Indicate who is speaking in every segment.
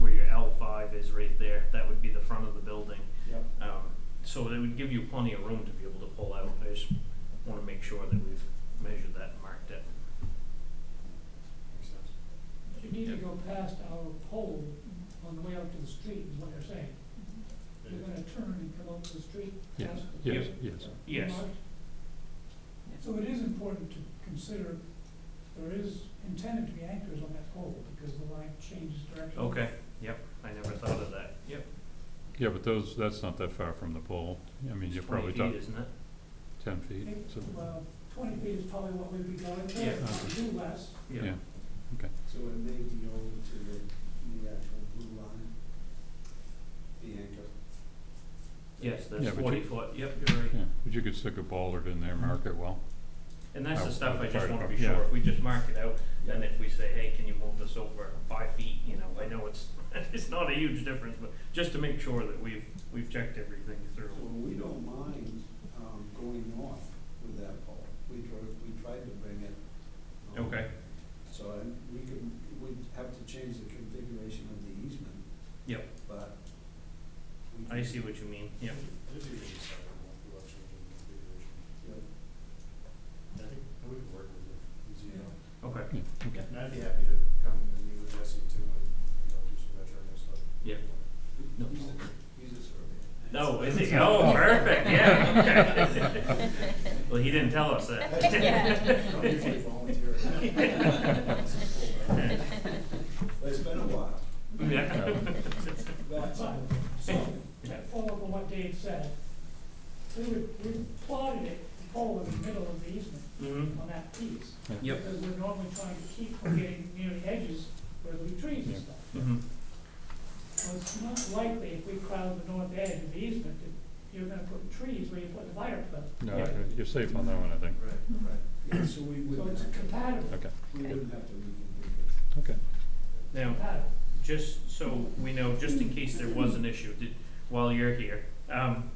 Speaker 1: Um, would give you plenty of room to be able to pull out. I just wanna make sure that we've measured that and marked it.
Speaker 2: Makes sense.
Speaker 3: You need to go past our pole on the way out to the street, is what you're saying. You're gonna turn and come out to the street
Speaker 4: Yes,
Speaker 3: past the.
Speaker 4: yes, yes.
Speaker 1: Yes.
Speaker 3: marked. So it is important to consider, there is intended to be anchors on that pole because the line changes direction.
Speaker 1: Okay, yep, I never thought of that. Yep.
Speaker 4: Yeah, but those, that's not that far from the pole. I mean,
Speaker 1: It's
Speaker 4: you're probably
Speaker 1: Twenty feet,
Speaker 4: talking
Speaker 1: isn't it?
Speaker 4: ten feet,
Speaker 3: It-
Speaker 4: so,
Speaker 3: Well, twenty feet is probably what we'd be going for,
Speaker 1: Yeah.
Speaker 3: if we do less.
Speaker 4: yeah.
Speaker 2: So it may be over to the, the actual blue line, the anchor.
Speaker 1: Yes, that's
Speaker 4: Yeah, but
Speaker 1: forty
Speaker 4: you-
Speaker 1: foot, yep, you're right.
Speaker 4: Yeah, but you could stick a bollard in there, mark it well.
Speaker 1: And that's
Speaker 4: Oh,
Speaker 1: the stuff I just
Speaker 4: sorry,
Speaker 1: wanna
Speaker 4: oh,
Speaker 1: be
Speaker 4: yeah.
Speaker 1: sure, if we just mark it out, then if we say, hey, can you move this over five feet, you know, I know it's, it's not a huge difference, but just to make sure that we've, we've checked everything through.
Speaker 2: So we don't mind, um, going north with that pole. We tried, we tried to bring it. um,
Speaker 1: Okay,
Speaker 2: So I, we could, we'd have to change the configuration of the easement.
Speaker 1: Yep.
Speaker 2: But. we
Speaker 1: I
Speaker 2: can-
Speaker 1: see what you mean, yep.
Speaker 5: It'd be just a sidewalk without changing the configuration.
Speaker 2: Yep.
Speaker 5: I think we could work with it, easy enough.
Speaker 1: Okay,
Speaker 4: Yeah, okay.
Speaker 5: And I'd be happy to come and meet with Jesse too and, you know, do some measuring and stuff.
Speaker 1: Yeah. No.
Speaker 2: He's a, he's a surveyor.
Speaker 1: No, is he? Oh, perfect, yeah, okay. Well, he didn't tell us that.
Speaker 2: I don't usually volunteer. But it's been a while.
Speaker 1: Yeah.
Speaker 2: That's all.
Speaker 3: So, to follow up on what Dave said, we would, we plotted it, the pole in the middle of the easement
Speaker 1: Mhm.
Speaker 3: on that piece.
Speaker 1: Yep.
Speaker 3: Because we're normally trying to keep from getting near the edges where there'll be trees and
Speaker 4: Yeah.
Speaker 3: stuff.
Speaker 1: Mhm.
Speaker 3: Well, it's not likely if we crowd the north edge of the easement that you're gonna put trees where you put the fire pit.
Speaker 4: No,
Speaker 1: Yeah.
Speaker 4: you're safe on that one, I think.
Speaker 2: Right, right. Yeah, so we
Speaker 3: So
Speaker 2: wouldn't,
Speaker 3: it's
Speaker 2: have to-
Speaker 3: compatible,
Speaker 4: Okay,
Speaker 2: we wouldn't have to reconfigure.
Speaker 4: okay.
Speaker 1: Now,
Speaker 3: compatible.
Speaker 1: just so we know, just in case there was an issue, did, while you're here, um,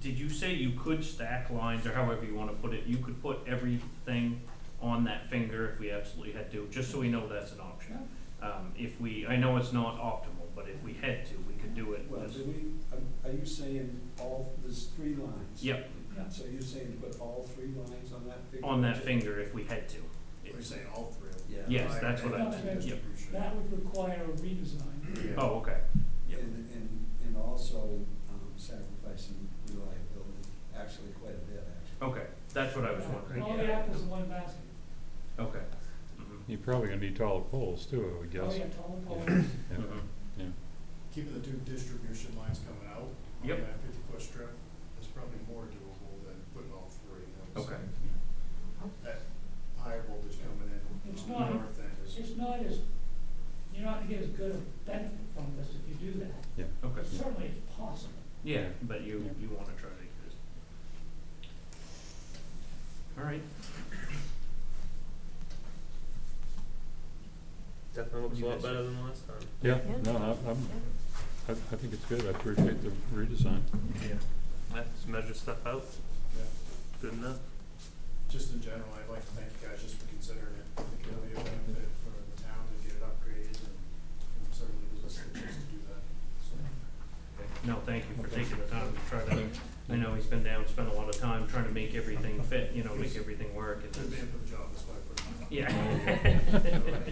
Speaker 1: did you say you could stack lines or however you wanna put it, you could put everything on that finger if we absolutely had to, just so we know that's an option? Um, if we, I know it's not optimal, but if we had to, we could do it.
Speaker 2: Well,
Speaker 1: as-
Speaker 2: do we, are- are you saying all, there's three lines?
Speaker 1: Yep,
Speaker 3: Yeah.
Speaker 2: So you're saying put all three lines on that figure?
Speaker 1: on that finger if we had to. It's-
Speaker 5: We're saying all three of them.
Speaker 2: Yeah.
Speaker 1: Yes, that's what I,
Speaker 3: Yeah.
Speaker 1: meant, yep.
Speaker 3: That would require a redesign.
Speaker 5: Yeah.
Speaker 1: Oh, okay. Yep.
Speaker 2: And, and, and also um, sacrificing reliability, actually quite a bit, actually.
Speaker 1: Okay, that's what I was wondering.
Speaker 3: All the apples in one basket.
Speaker 1: Okay. Mhm.
Speaker 4: You're probably gonna need taller poles too, I would
Speaker 3: Oh,
Speaker 4: guess.
Speaker 3: yeah, tall poles.
Speaker 4: Yeah.
Speaker 1: Mhm.
Speaker 5: Keeping the two distribution lines coming out. on
Speaker 1: Yep.
Speaker 5: That fifty foot strip is probably more doable than putting all three. I would
Speaker 1: Okay.
Speaker 5: say. That higher voltage coming in.
Speaker 3: It's
Speaker 5: on the
Speaker 3: not-
Speaker 5: North end is.
Speaker 3: It's not as, you're not gonna get as good a benefit from this if you do that.
Speaker 1: Okay,
Speaker 3: But Certainly it's possible.
Speaker 1: yeah, but you,
Speaker 4: Yeah.
Speaker 1: you wanna try to exist. All right.
Speaker 6: Definitely looks a
Speaker 1: You
Speaker 6: lot
Speaker 1: guys-
Speaker 6: better than last time.
Speaker 4: Yeah, no, I- I'm, I, I think it's good. I appreciate the redesign.
Speaker 1: Yeah.
Speaker 6: Let's measure stuff out,
Speaker 5: Yeah.
Speaker 6: good enough.
Speaker 5: Just in general, I'd like to thank you guys just for considering it. I think it'll be a benefit for the town to get it upgraded and and certainly the businesses to do that, so.
Speaker 1: Okay. No, thank you for taking the time to try to, I know he's been down, spent a lot of time trying to make everything fit, you know, make everything work and
Speaker 5: Good man
Speaker 1: that's,
Speaker 5: for the job, that's why I put it on.
Speaker 1: yeah.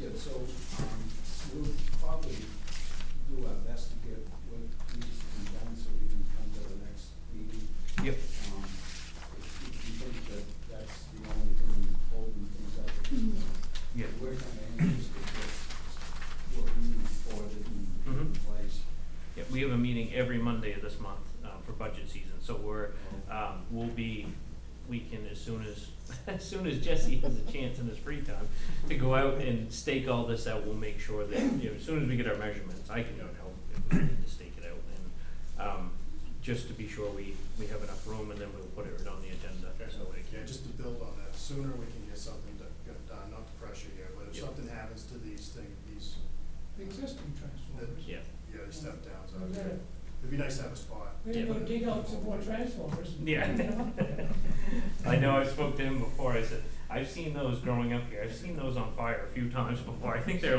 Speaker 2: Yeah, so, um, we'll probably do our best to get what needs to be done so we can come to the next meeting.
Speaker 1: Yep.
Speaker 2: Um, if if you think that that's the only thing holding things up, uh,
Speaker 1: Yeah.
Speaker 2: we're kind of anxious to get what we need for it in- in
Speaker 1: Mhm.
Speaker 2: place.
Speaker 1: Yeah, we have a meeting every Monday of this month, um, for budget season, so we're, um, will be, we can, as soon as, as soon as Jesse has a chance in his free time, to go out and stake all this out, we'll make sure that, you know, as soon as we get our measurements, I can go and help if we need to stake it out, and, um, just to be sure we, we have enough room, and then we'll put it on the agenda, so we
Speaker 5: Yeah,
Speaker 1: can.
Speaker 5: just to build on that, sooner we can get something do- get done, not to pressure you, but if
Speaker 1: Yeah.
Speaker 5: something happens to these things, these,
Speaker 3: The existing transformers.
Speaker 1: Yeah,
Speaker 5: yeah, these step downs
Speaker 3: We
Speaker 5: out
Speaker 3: gotta-
Speaker 5: there, it'd be nice to have a spot.
Speaker 3: We gotta go dig out some more transformers. and
Speaker 1: Yeah.
Speaker 3: put them up there.
Speaker 1: I know, I spoke to him before, I said, I've seen those growing up here, I've seen those on fire a few times before, I think they're